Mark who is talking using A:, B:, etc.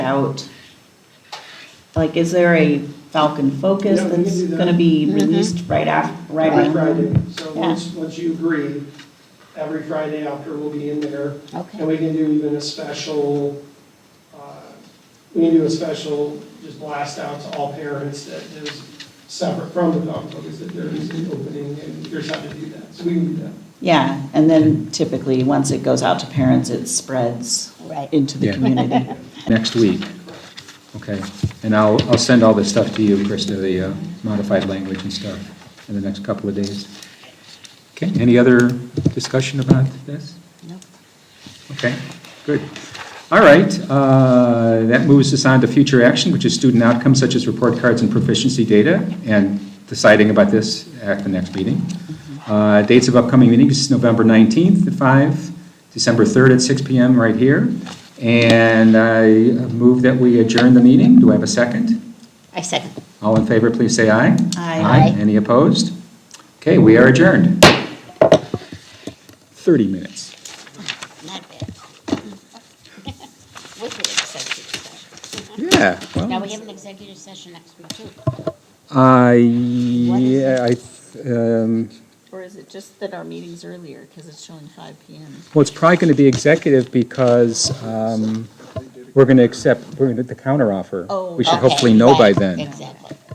A: out, like, is there a Falcon Focus
B: Yeah, we can
A: that's
B: do that.
A: gonna be released right after, right
B: Every
A: after?
B: Friday, so
A: Yeah.
B: once, once you agree, every Friday after we'll be in there, and
C: Okay,
B: we can do even a special, uh, we can do a special, just blast out to all parents that is separate from the dog focus, that there is an opening, and here's how to do that, so we can do that.
A: Yeah, and then typically, once it goes out to parents, it spreads
C: right.
A: into the
D: Yeah.
A: community.
D: next week. Okay, and I'll, I'll send all this stuff to you, Krista, the uh, modified language and stuff, in the next couple of days. Okay, any other discussion about this?
C: Nope.
D: Okay, good. All right, uh, that moves us on to future action, which is student outcomes such as report cards and proficiency data, and deciding about this at the next meeting. Uh, Dates of upcoming meetings, November 19th at 5, December 3rd at 6 PM right here. And I move that we adjourn the meeting. Do I have a second?
C: I second.
D: All in favor, please say aye.
A: Aye.
C: Aye.
D: Any opposed? Okay, we are adjourned. 30 minutes.
C: Not bad. With the executive session.
D: Yeah. well-
C: Now, we have an executive session next week, too.
D: Uh,
C: is
D: yeah, I, th- um,
E: Or is it just that our meeting's earlier, because it's showing five PM?
D: well, it's probably going to be executive because, um, we're going to accept, we're going to, the counteroffer.
E: Oh,
D: We should
C: Okay,
D: hopefully know by
C: right,
D: then.
C: Exactly.